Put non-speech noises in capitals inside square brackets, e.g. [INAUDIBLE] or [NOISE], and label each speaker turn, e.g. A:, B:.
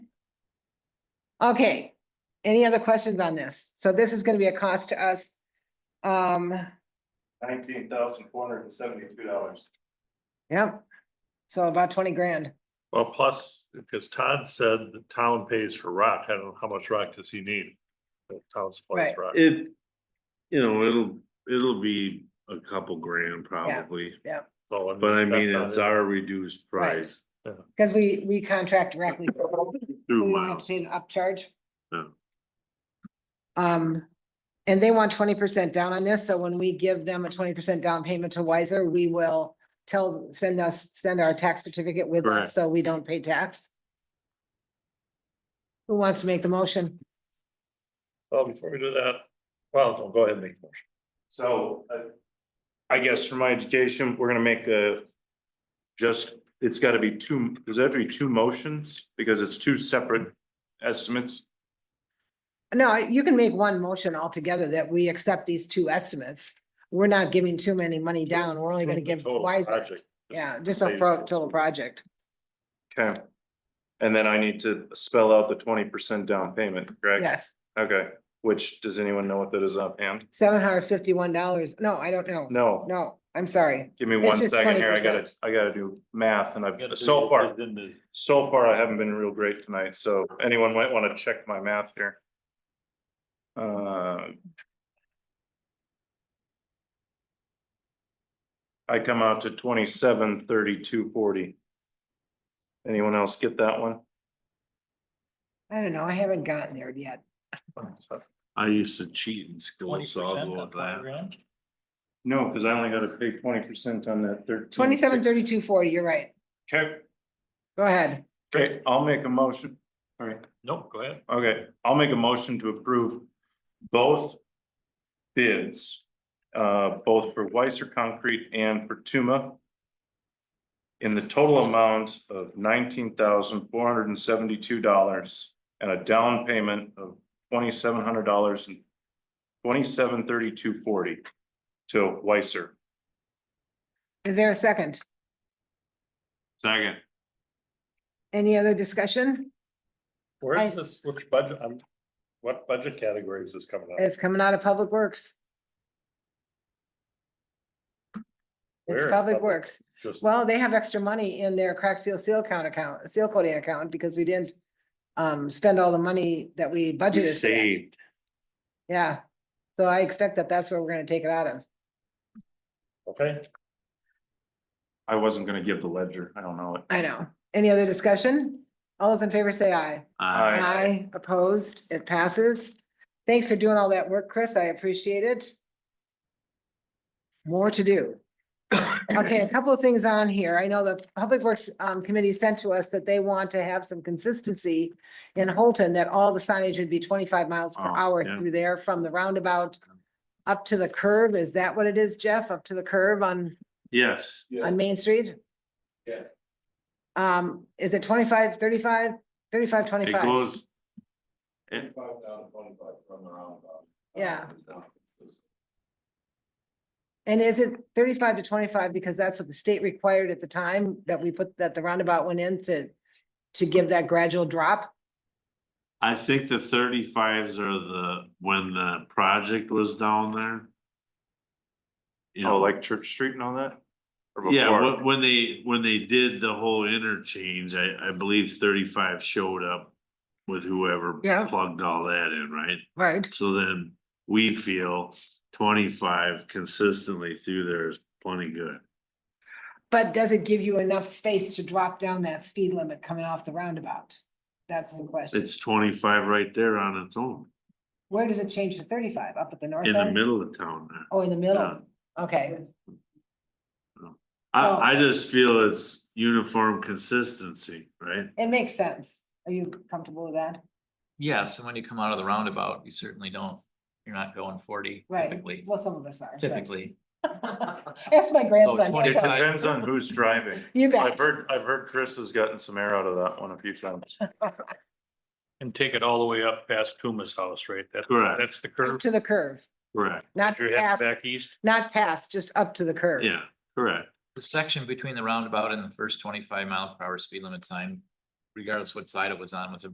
A: Okay, any other questions on this? So this is gonna be a cost to us. Um,
B: nineteen thousand four hundred and seventy-two dollars.
A: yep, so about twenty grand.
C: Well, plus, because Todd said the town pays for rock, I don't know how much rock does he need? The town supplies
A: Right.
C: rock.
D: It, you know, it'll, it'll be a couple grand probably,
C: So,
D: but I mean,
C: that's
D: it's
C: not it.
D: our reduced price.
A: Cause we, we contract directly.
D: Through
A: We don't have to
D: miles,
A: pay the upcharge.
D: No.
A: Um, and they want twenty percent down on this, so when we give them a twenty percent down payment to Wiser, we will tell, send us, send our tax certificate with
D: Correct.
A: us, so we don't pay tax. Who wants to make the motion?
C: Well, before we do that, well, no, go ahead and make the motion.
B: So, uh, I guess for my education, we're gonna make a, just, it's gotta be two, does that have to be two motions? Because it's two separate estimates.
A: No, you can make one motion altogether that we accept these two estimates. We're not giving too many money down. We're only gonna
C: Approve the
A: give
C: total
A: Wiser,
C: project.
A: yeah, just a pro- total project.
B: Okay. And then I need to spell out the twenty percent down payment, correct?
A: Yes,
B: Okay, which, does anyone know what that is offhand?
A: seven hundred fifty-one dollars. No, I don't know.
B: No,
A: No, I'm sorry.
B: give me
A: It's
B: one
A: just
B: second here, I gotta,
A: 20%.
B: I gotta do math and I've,
C: You
B: so far,
C: just didn't do-
B: so far I haven't been real great tonight, so anyone might wanna check my math here. Uh. I come out to twenty-seven, thirty-two, forty. Anyone else get that one?
A: I don't know. I haven't gotten there yet.
D: I used to cheat in school, so I'll go with that.
B: No, cause I only gotta pay twenty percent on that thirteen.
A: Twenty-seven, thirty-two, forty, you're right.
B: Okay,
A: Go ahead.
B: okay, I'll make a motion, alright.
C: Nope, go ahead.
B: Okay, I'll make a motion to approve both bids, uh, both for Weiser Concrete and for Tuma in the total amount of nineteen thousand four hundred and seventy-two dollars and a down payment of twenty-seven hundred dollars and twenty-seven thirty-two forty to Weiser.
A: Is there a second?
D: Second,
A: Any other discussion?
C: Where
A: I-
C: is this, which budget, um, what budget category is this coming out?
A: It's coming out of Public Works. It's
C: Where?
A: Public Works.
C: Just,
A: Well, they have extra money in their crack seal seal count account, seal coating account, because we didn't um, spend all the money that we
D: we
A: budgeted. for that.
D: saved.
A: Yeah, so I expect that that's where we're gonna take it out of.
C: okay,
B: I wasn't gonna give the ledger, I don't know it.
A: I know. Any other discussion? All those in favor say aye.
D: Uh,
B: Aye.
A: Aye, opposed, it passes. Thanks for doing all that work, Chris. I appreciate it. More to do. Okay, a couple of things on here. I know the Public Works um committee sent to us that they want to have some consistency in Holton, that all the signage would be twenty-five miles per
D: Oh,
A: hour
D: yeah.
A: through there from the roundabout up to the curve. Is that what it is, Jeff? Up to the curve on
D: yes,
A: on Main Street?
B: Yeah.
A: Um, is it 25, 35, 35, 25?
D: it goes. It,
A: Yeah.
B: Oh,
A: And is it thirty-five to twenty-five? Because that's what the state required at the time that we put, that the roundabout went in to, to give that gradual drop?
D: I think the thirty-fives are the, when the project was down there. You
B: Oh,
D: know,
B: like Church Street and all that? Or
D: Yeah,
B: before?
D: when, when they, when they did the whole interchange, I, I believe thirty-five showed up with whoever
A: Yeah.
D: plugged all that in, right?
A: Right.
D: So then we feel twenty-five consistently through there is plenty good.
A: But does it give you enough space to drop down that speed limit coming off the roundabout? That's the question.
D: It's twenty-five right there on its own,
A: Where does it change to thirty-five? Up at the north
D: in the
A: end?
D: middle of town there.
A: Oh, in the
D: Yeah.
A: middle? Okay, Oh.
D: I, I just feel it's uniform consistency, right?
A: it makes sense. Are you comfortable with that?
E: Yes, and when you come out of the roundabout, you certainly don't, you're not going forty
A: Right,
E: typically,
A: well, some of us are. but-
E: typically.
A: [LAUGHS] Ask my grandson. he'll
E: 25.
B: It
A: tell you.
B: depends on who's driving.
A: You
B: I've
A: bet.
B: heard, I've heard Chris has gotten some air out of that one a few times.
C: and take it all the way up past Tuma's house, right? That-
D: Correct.
C: That's the
A: Up
C: curve.
A: to the curve,
D: Correct,
A: not
C: You're heading
A: past,
C: back east.
A: not past, just up to the curve.
D: yeah, correct.
E: The section between the roundabout and the first twenty-five mile per hour speed limit sign, regardless what side it was on, was a